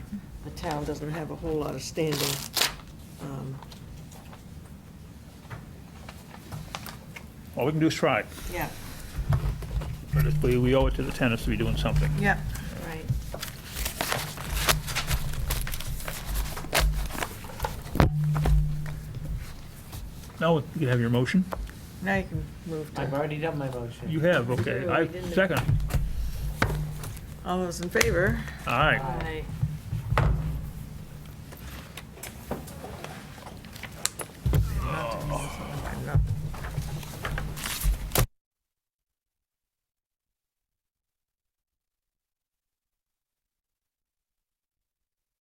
town doesn't have a whole lot of standing. Um, All we can do is try, Yeah, but it's- we we owe it to the tenants to be doing something. yeah, right. Now, you can have your motion. Now you can move I've to, already done my motion. You have, okay. I second. all those in favor? All right. Aye.